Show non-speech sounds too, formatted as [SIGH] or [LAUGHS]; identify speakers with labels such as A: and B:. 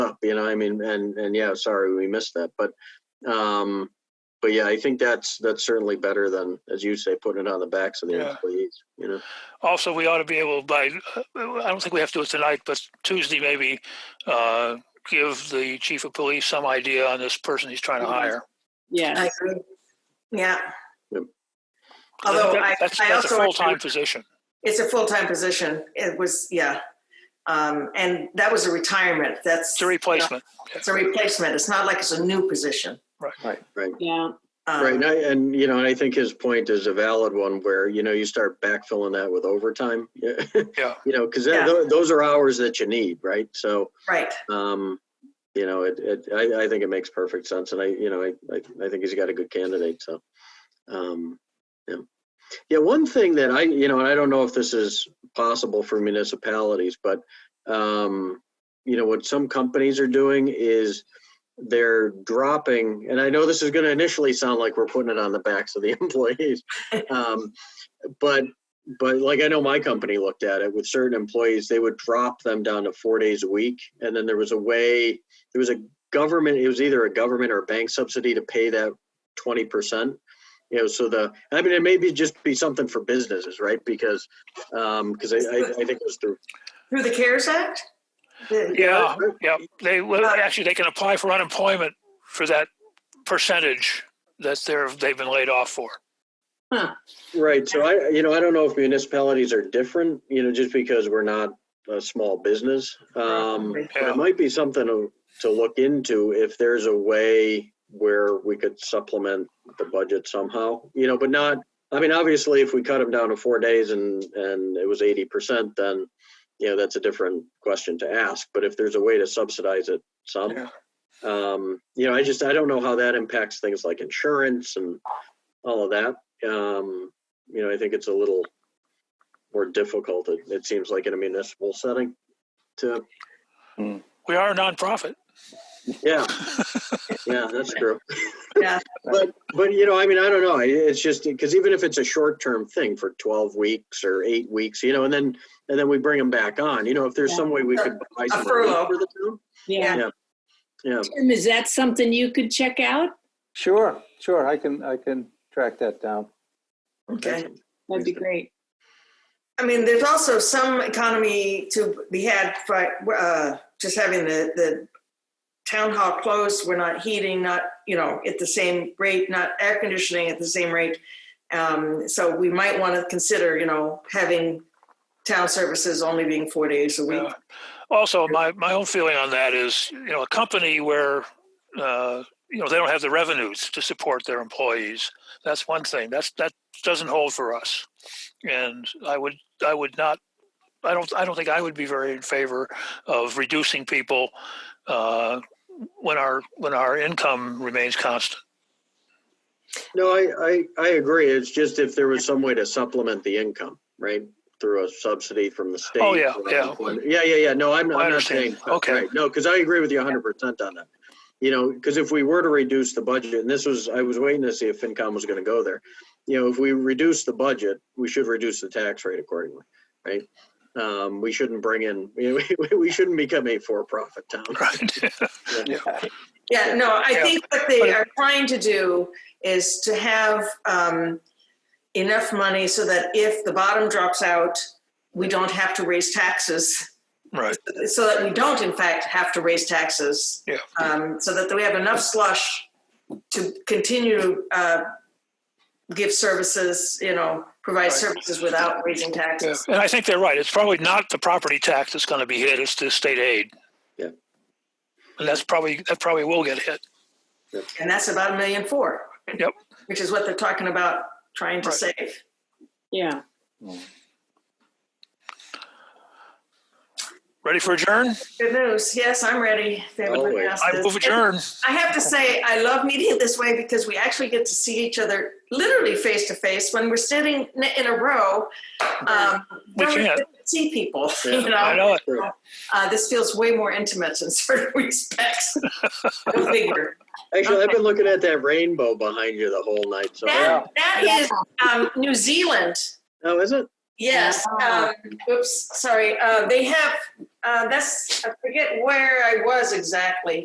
A: you know, I mean, and, and yeah, sorry, we missed that, but, um, but yeah, I think that's, that's certainly better than, as you say, putting it on the backs of the
B: Yeah.
A: employees, you know?
B: Also, we ought to be able by, uh, I don't think we have to do it tonight, but Tuesday maybe, uh, give the chief of police some idea on this person he's trying to
C: Mm-hmm.
B: hire.
D: Yeah,
C: I agree. Yeah.
A: Yep.
C: Although I,
B: That's,
C: I
B: that's a
C: also.
B: full-time position.
C: It's a full-time position. It was, yeah. Um, and that was a retirement. That's.
B: It's a replacement.
C: It's a replacement. It's not like it's a new position.
A: Right. Right.
D: yeah.
C: Um,
A: Right, and, I, and you know, and I think his point is a valid one where, you know, you start backfilling that with overtime. [LAUGHS] Yeah.
B: Yeah.
A: You know, because
C: Yeah.
A: those are hours that you need, right? So,
C: Right.
A: um, you know, it, it, I, I think it makes perfect sense. And I, you know, I, I, I think he's got a good candidate. So, um, yeah. Yeah. One thing that I, you know, and I don't know if this is possible for municipalities, but, um, you know, what some companies are doing is they're dropping, and I know this is going to initially sound like we're putting it on the backs of the [LAUGHS] employees. Um, but, but like I know my company looked at it with certain employees, they would drop them down to four days a week. And then there was a way, there was a government, it was either a government or a bank subsidy to pay that 20%. You know, so the, I mean, it may be just be something for businesses, right? Because, um, because I, I, I think it was through.
C: Through the CARES Act? The-
B: Yeah, Uh, yeah. They, well,
C: Uh,
B: actually, they can apply for unemployment for that percentage that they're, they've been laid off for.
A: Right, so I, you know, I don't know if municipalities are different, you know, just because we're not a small business. Um,
C: Right.
A: but it might be something to, to look into if there's a way where we could supplement the budget somehow, you know, but not, I mean, obviously, if we cut them down to four days and, and it was eighty percent, then, you know, that's a different question to ask, but if there's a way to subsidize it some.
B: Yeah.
A: Um, you know, I just, I don't know how that impacts things like insurance and all of that. Um, you know, I think it's a little more difficult, it, it seems like in a municipal setting to,
B: We are a nonprofit.
A: yeah. Yeah, that's true.
C: Yeah.
A: [LAUGHS] But, but you know, I mean, I don't know. I- It's just, because even if it's a short-term thing for 12 weeks or eight weeks, you know, and then, and then we bring them back on, you know, if there's some way we could buy some relief
C: furlough.
A: for the town.
D: Yeah.
A: Yeah,
D: Tim, is that something you could check out?
E: Sure, sure, I can, I can track that down.
C: Okay.
D: That'd be great.
C: I mean, there's also some economy to be had by uh, just having the, the town hall closed. We're not heating, not, you know, at the same rate, not air conditioning at the same rate. Um, so we might want to consider, you know, having town services only being four days a week.
B: Yeah. Also, my, my own feeling on that is, you know, a company where, uh, you know, they don't have the revenues to support their employees. That's one thing. That's that doesn't hold for us. And I would I would not I don't I don't think I would be very in favor of reducing people uh, when our when our income remains constant. [LAUGHS]
A: no, I, I, I agree. It's just if there was some way to supplement the income, right? Through a subsidy from the state.
B: Oh, yeah,
A: or-
B: yeah.
A: Yeah, yeah, yeah. No, I'm,
B: I
A: I'm not
B: understand.
A: saying.
B: Okay.
A: Right. No, because I agree with you hundred percent on that. You know, because if we were to reduce the budget, and this was, I was waiting to see if FinCom was gonna go there. You know, if we reduce the budget, we should reduce the tax rate accordingly, right? Um, we shouldn't bring in, [LAUGHS] you know, we, we shouldn't become a for-profit town.
B: Right.
C: Yeah, no, I
B: Yeah.
C: think what they
B: But-
C: are trying to do is to have um, enough money so that if the bottom drops out, we don't have to raise taxes,
B: [LAUGHS]
C: [LAUGHS]
B: right.
C: so that we don't, in fact, have to raise taxes.
B: Yeah.
C: Um, so that we have enough slush to continue to uh, give services, you know, provide
B: Right.
C: services without raising
B: Yeah.
C: taxes.
B: And I think they're right. It's probably not the property tax that's going to be hit. It's the state aid.
A: Yeah.
B: And that's probably that probably will get hit.
C: And that's about a million four.
B: Yep.
C: Which is what they're talking about trying to
B: Right.
C: save.
D: Yeah.
B: Ready for adjourn?
C: Good news. Yes, I'm ready. If everybody
A: Always.
C: else
B: I
C: is.
B: move adjourn.
C: I have to say, I love meeting this way because we actually get to see each other literally face to face. When we're sitting in- in a row, um,
B: We
C: don't really
B: can't.
C: get to see people. [LAUGHS]
A: Yeah,
C: you know,
B: I know it.
C: Uh, this feels way more intimate in certain [LAUGHS] respects. Go figure.
A: Actually, I've been looking at that rainbow behind you the whole night, so.
C: That, that is um, New Zealand.
A: Oh, is it?
C: Yes, um, oops, sorry, uh, they have, uh, that's, I forget where I was exactly.